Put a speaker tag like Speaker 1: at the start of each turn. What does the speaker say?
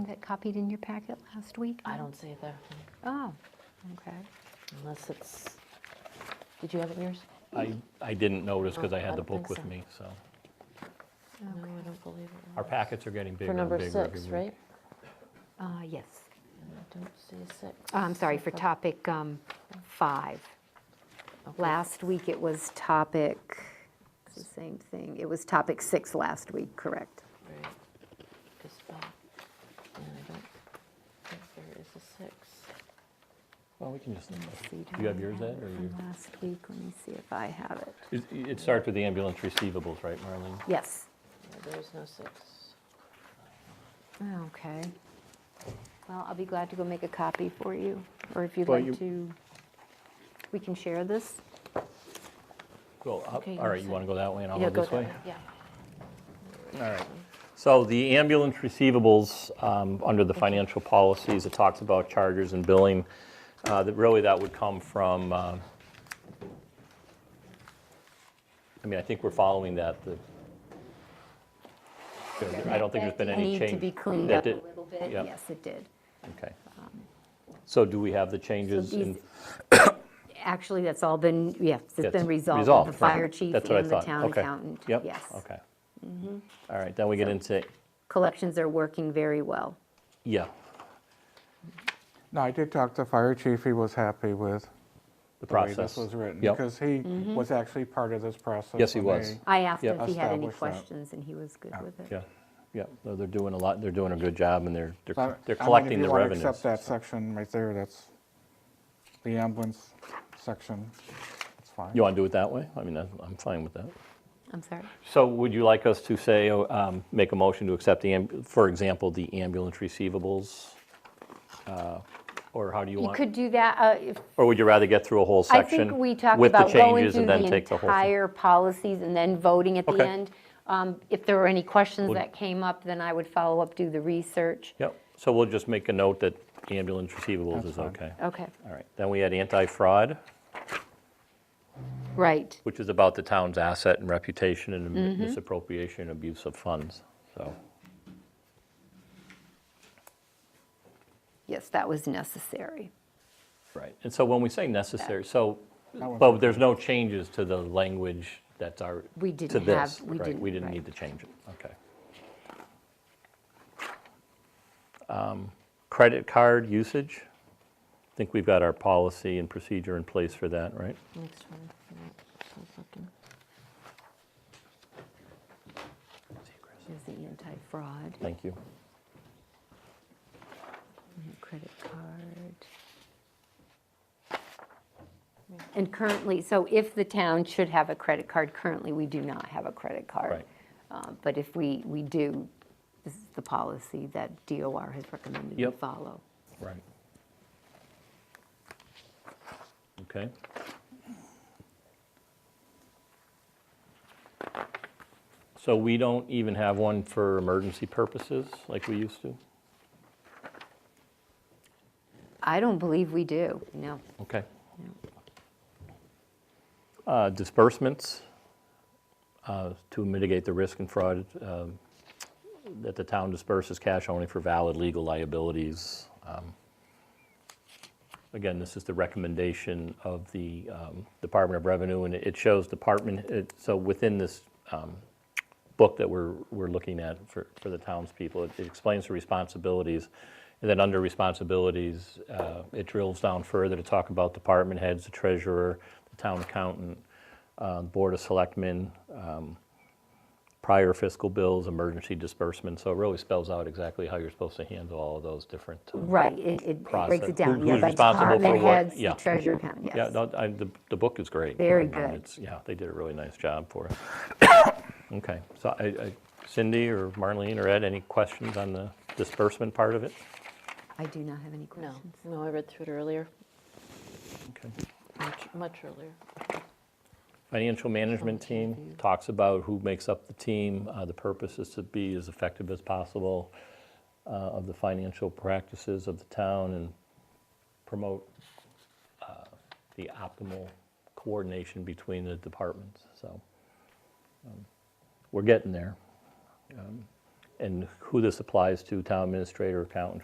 Speaker 1: it copied in your packet last week?
Speaker 2: I don't see it there,
Speaker 1: Oh, okay.
Speaker 2: unless it's, did you have it in yours?
Speaker 3: I, I didn't notice because I
Speaker 2: I
Speaker 3: had the
Speaker 2: don't think
Speaker 3: book with
Speaker 2: so.
Speaker 3: me, so.
Speaker 2: No, I don't believe it.
Speaker 3: Our packets are getting bigger
Speaker 2: For
Speaker 3: and bigger
Speaker 2: number
Speaker 3: every week.
Speaker 2: six, right?
Speaker 1: Uh, Yes.
Speaker 2: I don't see a six.
Speaker 1: Uh, I'm sorry, for topic um, five.
Speaker 2: Okay.
Speaker 1: Last week it was topic, it's the same thing. It was topic six last week, correct?
Speaker 2: Right. It's back. And I don't think there is a six.
Speaker 3: Well, we can just,
Speaker 1: Let me see, do
Speaker 3: you have
Speaker 1: I
Speaker 3: yours,
Speaker 1: it
Speaker 3: Ed,
Speaker 1: from
Speaker 3: or
Speaker 2: Uh-huh.
Speaker 3: you-
Speaker 1: Last week, let me see if I have it.
Speaker 3: it it starts with the ambulance receivables, right, Marlene?
Speaker 1: Yes.
Speaker 2: Yeah, There is no six.
Speaker 1: Oh, Okay. Well, I'll be glad to go make a copy for you, or if you'd
Speaker 3: Well,
Speaker 1: like
Speaker 3: you-
Speaker 1: to, we can share this.
Speaker 3: Well, up-
Speaker 2: Okay,
Speaker 3: all right,
Speaker 2: you
Speaker 3: you
Speaker 2: said-
Speaker 3: want to go that way and I'll
Speaker 2: Yeah,
Speaker 3: go
Speaker 2: go
Speaker 3: this
Speaker 2: that
Speaker 3: way?
Speaker 2: Yeah.
Speaker 3: All right. So the ambulance receivables, um, under the financial policies, it talks about charges and billing. uh, That Really, that would come from, uh, I mean, I think we're following that. the- I don't think there's been any change.
Speaker 1: Need to be cleaned
Speaker 3: that
Speaker 1: up a
Speaker 3: did-
Speaker 1: little bit.
Speaker 3: yeah.
Speaker 1: Yes, it did.
Speaker 3: Okay. So do we have the changes in?
Speaker 1: these- Actually, that's all been, yes, it's
Speaker 3: that's
Speaker 1: been resolved with
Speaker 3: resolved,
Speaker 1: the
Speaker 3: right.
Speaker 1: fire chief
Speaker 3: That's what I
Speaker 1: and the
Speaker 3: thought.
Speaker 1: town
Speaker 3: Okay.
Speaker 1: accountant.
Speaker 3: Yep,
Speaker 1: Yes.
Speaker 3: okay. All right, then we get into,
Speaker 1: Collections are working very well.
Speaker 3: yeah,
Speaker 4: No, I did talk to fire chief, he was happy with
Speaker 3: the
Speaker 4: the way this
Speaker 3: process.
Speaker 4: was written.
Speaker 3: Yep.
Speaker 4: Because he was actually part of this process.
Speaker 3: Yes, he
Speaker 4: when
Speaker 3: was.
Speaker 4: they-
Speaker 1: I asked
Speaker 3: Yeah.
Speaker 1: if he had any
Speaker 4: Establish that.
Speaker 1: questions, and he was good with it.
Speaker 3: Yeah, yeah, no, they're doing a lot, they're doing a good job, and they're,
Speaker 4: So, I-
Speaker 3: they're they're
Speaker 4: I mean,
Speaker 3: collecting the
Speaker 4: If
Speaker 3: revenues.
Speaker 4: you want to accept that section right there, that's the ambulance section, that's fine.
Speaker 3: You want to do it that way? I mean, I'm I'm fine with that.
Speaker 1: I'm sorry.
Speaker 3: So would you like us to say, oh, um, make a motion to accept the, ambu- for example, the ambulance receivables? Uh, Or how do you
Speaker 1: You
Speaker 3: want?
Speaker 1: could do that, uh, if
Speaker 3: Or would you rather get through a whole
Speaker 1: I
Speaker 3: section?
Speaker 1: think we talked
Speaker 3: with the
Speaker 1: about going
Speaker 3: changes
Speaker 1: through
Speaker 3: and then
Speaker 1: the
Speaker 3: take whole thing?
Speaker 1: entire policies and then voting at the
Speaker 3: Okay.
Speaker 1: end. Um, If there were any questions
Speaker 3: Would-
Speaker 1: that came up, then I would follow up, do the research.
Speaker 3: Yep, so we'll just make a note that ambulance receivables is
Speaker 4: fine.
Speaker 3: okay.
Speaker 1: Okay,
Speaker 3: All right, then we had anti-fraud,
Speaker 1: right.
Speaker 3: which is about the town's asset and reputation and
Speaker 1: Mm-hmm.
Speaker 3: misappropriation and abuse of funds, so.
Speaker 1: Yes, that was necessary.
Speaker 3: Right, and so when we say necessary, so,
Speaker 4: one's
Speaker 3: but there's no changes to the language that's our,
Speaker 1: We
Speaker 3: to
Speaker 1: didn't have-
Speaker 3: this,
Speaker 1: we
Speaker 3: right?
Speaker 1: didn't-
Speaker 3: We didn't
Speaker 1: right.
Speaker 3: need to change it, okay. Um, Credit card usage, I think we've got our policy and procedure in place for that, right?
Speaker 2: Next one. Yeah, so fucking-
Speaker 1: There's the anti-fraud,
Speaker 3: Thank you.
Speaker 1: and credit card. And currently, so if the town should have a credit card, currently, we do not have a credit card.
Speaker 3: Right.
Speaker 1: Uh, But if we, we do, this is the policy that DOR has recommended we
Speaker 3: Yep.
Speaker 1: follow.
Speaker 3: Right. Okay. So we don't even have one for emergency purposes like we used to?
Speaker 1: I don't believe we do, no.
Speaker 3: Okay. Uh, Disbursements uh, to mitigate the risk and fraud um, that the town disperses cash only for valid legal liabilities. Um, Again, this is the recommendation of the um, Department of Revenue, and it shows department, it- so within this um, book that we're, we're looking at for, for the townspeople. It it explains the responsibilities. And then under responsibilities, uh, it drills down further to talk about department heads, the treasurer, the town accountant, uh, board of selectmen, um, prior fiscal bills, emergency disbursements. So it really spells out exactly how you're supposed to handle all of those different. uh,
Speaker 1: Right, it, it breaks
Speaker 3: Process.
Speaker 1: it down,
Speaker 3: Who-
Speaker 1: yeah,
Speaker 3: who's
Speaker 1: by
Speaker 3: responsible for
Speaker 1: department
Speaker 3: what?
Speaker 1: heads, the
Speaker 3: Yeah.
Speaker 1: treasurer account,
Speaker 3: Yeah,
Speaker 1: yes.
Speaker 3: no, I, the, the book is great.
Speaker 1: Very
Speaker 3: I mean,
Speaker 1: good.
Speaker 3: it's- Yeah, they did a really nice job for it. Okay, so I- I- Cindy or Marlene or Ed, any questions on the disbursement part of it?
Speaker 1: I do not have any
Speaker 2: No,
Speaker 1: questions.
Speaker 2: no, I read through it earlier,
Speaker 3: Okay.
Speaker 2: much, much earlier.
Speaker 3: Financial management team talks about who makes up the team. Uh, The purpose is to be as effective as possible uh, of the financial practices of the town and promote uh, the optimal coordination between the departments, so. um, We're getting there. Um, and who this applies to, town administrator, accountant,